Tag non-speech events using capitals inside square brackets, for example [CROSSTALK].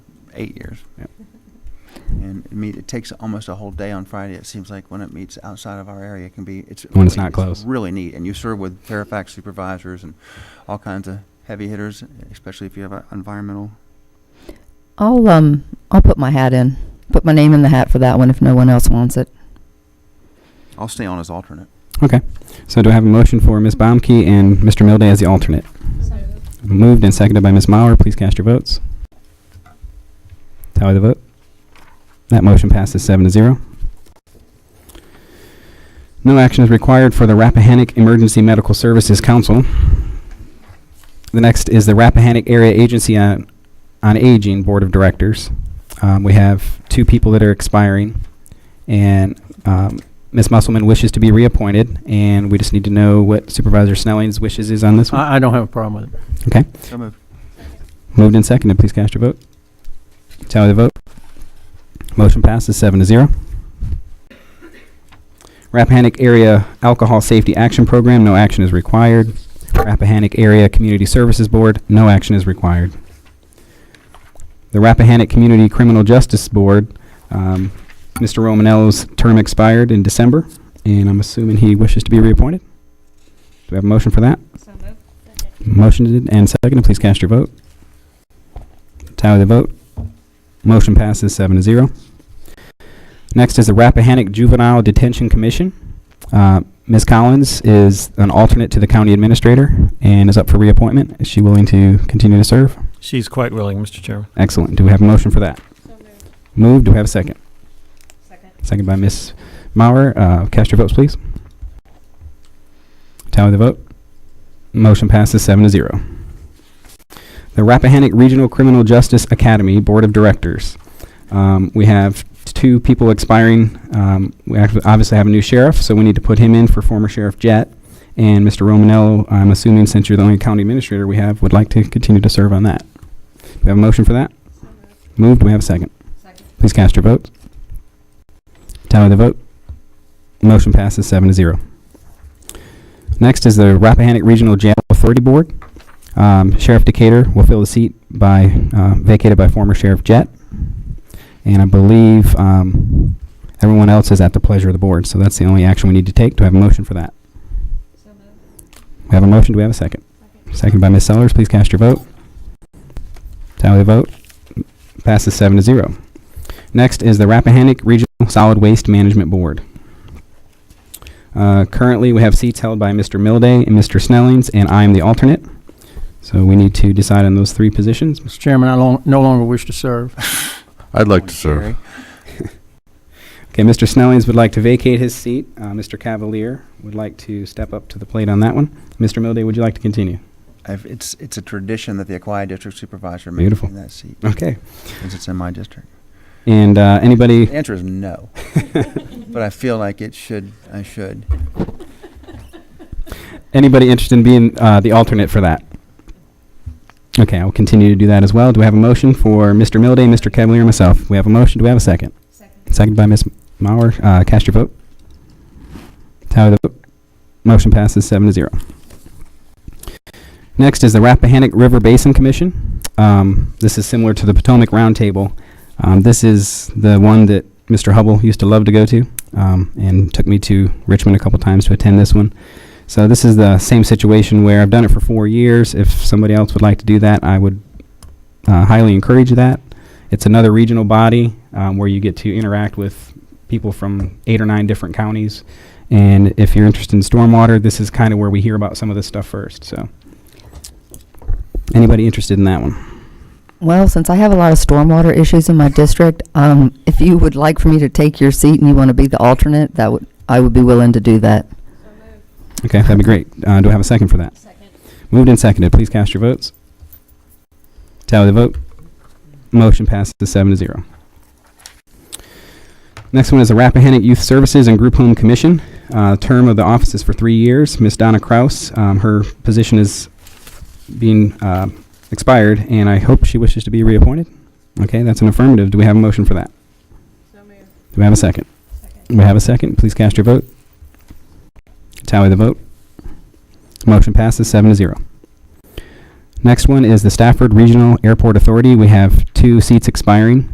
eight years. Yeah. And it meet, it takes almost a whole day on Friday. It seems like when it meets outside of our area, it can be, it's. When it's really- not closed. Really neat. And you serve with Fairfax supervisors and all kinds of heavy hitters, especially if you have an environmental. I'll, um, I'll put my hat in, put my name in the hat for that one if no one else wants it. I'll stay on as alternate. So do I have a motion for Ms. Baumke and Mr. Milday as the alternate? Moved and seconded by Ms. Mauer. Please cast your votes. Tally the vote. That motion passes seven to zero. No action is required for the Rappahannock Emergency Medical Services Council. The next is the Rappahannock Area Agency on, on Aging Board of Directors. Um, we have two people that are expiring, and um, Ms. Musselman wishes to be reappointed, and we just need to know what Supervisor Snelling's wishes is on this one. I, I don't have a problem with it. So moved. Moved and seconded. Please cast your vote. Tally the vote. Motion passes seven to zero. Rappahannock Area Alcohol Safety Action Program, no action is required. Rappahannock Area Community Services Board, no action is required. The Rappahannock Community Criminal Justice Board, um, Mr. Romanello's term expired in December, and I'm assuming he wishes to be reappointed. Do we have a motion for that? Motioned and seconded. Please cast your vote. Tally the vote. Motion passes seven to zero. Next is the Rappahannock Juvenile Detention Commission. Uh, Ms. Collins is an alternate to the county administrator and is up for reappointment. Is she willing to continue to serve? She's quite willing, Mr. Chairman. Excellent. Do we have a motion for that? Moved. Do we have a second? Second. Second by Ms. Mauer. Uh, cast your votes, please. Tally the vote. Motion passes seven to zero. The Rappahannock Regional Criminal Justice Academy Board of Directors. Um, we have two people expiring. Um, we actually obviously have a new sheriff, so we need to put him in for former Sheriff Jett. And Mr. Romanello, I'm assuming since you're the only county administrator we have, would like to continue to serve on that. Do we have a motion for that? Moved. Do we have a second? Please cast your votes. Tally the vote. Motion passes seven to zero. Next is the Rappahannock Regional Jail Authority Board. Um, Sheriff Decatur will fill the seat by, uh, vacated by former Sheriff Jett. And I believe, um, everyone else is at the pleasure of the board, so that's the only action we need to take. Do I have a motion for that? We have a motion. Do we have a second? Second by Ms. Sellers. Please cast your vote. Tally the vote. Passes seven to zero. Next is the Rappahannock Regional Solid Waste Management Board. Uh, Currently, we have seats held by Mr. Milday and Mr. Snellings, and I am the alternate. So we need to decide on those three positions. [LAUGHS] Mr. Chairman, I lo- no longer wish to serve. I'd like to serve. Okay, Mr. Snellings would like to vacate his seat. Uh, Mr. Cavalier would like to step up to the plate on that one. Mr. Milday, would you like to continue? I've, it's, it's a tradition that the Aquia District Supervisor Beautiful. maintain that [LAUGHS] seat, Okay. since it's in my district. And uh, anybody The answer is [LAUGHS] no. But I feel like it should, I should. Anybody interested in being uh, the alternate for that? Okay, I'll continue to do that as well. Do we have a motion for Mr. Milday, Mr. Cavalier, and myself? We have a motion. Do we have a second? Second. Second by Ms. Mauer. Uh, cast your vote. Tally the vote. Motion passes seven to zero. Next is the Rappahannock River Basin Commission. Um, this is similar to the Potomac Roundtable. Um, this is the one that Mr. Hubble used to love to go to, um, and took me to Richmond a couple times to attend this one. So this is the same situation where I've done it for four years. If somebody else would like to do that, I would uh, highly encourage that. It's another regional body um, where you get to interact with people from eight or nine different counties. And if you're interested in stormwater, this is kind of where we hear about some of this stuff first. So, anybody interested in that one? Well, since I have a lot of stormwater issues in my district, um, if you would like for me to take your seat and you want to be the alternate, that would, I would be willing to do that. Okay, that'd be great. Uh, do I have a second for that? Second. Moved and seconded. Please cast your votes. Tally the vote. Motion passes seven to zero. Next one is the Rappahannock Youth Services and Group Home Commission. Uh, term of the office is for three years. Miss Donna Kraus, um, her position is being uh, expired, and I hope she wishes to be reappointed. Okay, that's an affirmative. Do we have a motion for that? Do we have a second? Second. We have a second. Please cast your vote. Tally the vote. Motion passes seven to zero. Next one is the Stafford Regional Airport Authority. We have two seats expiring.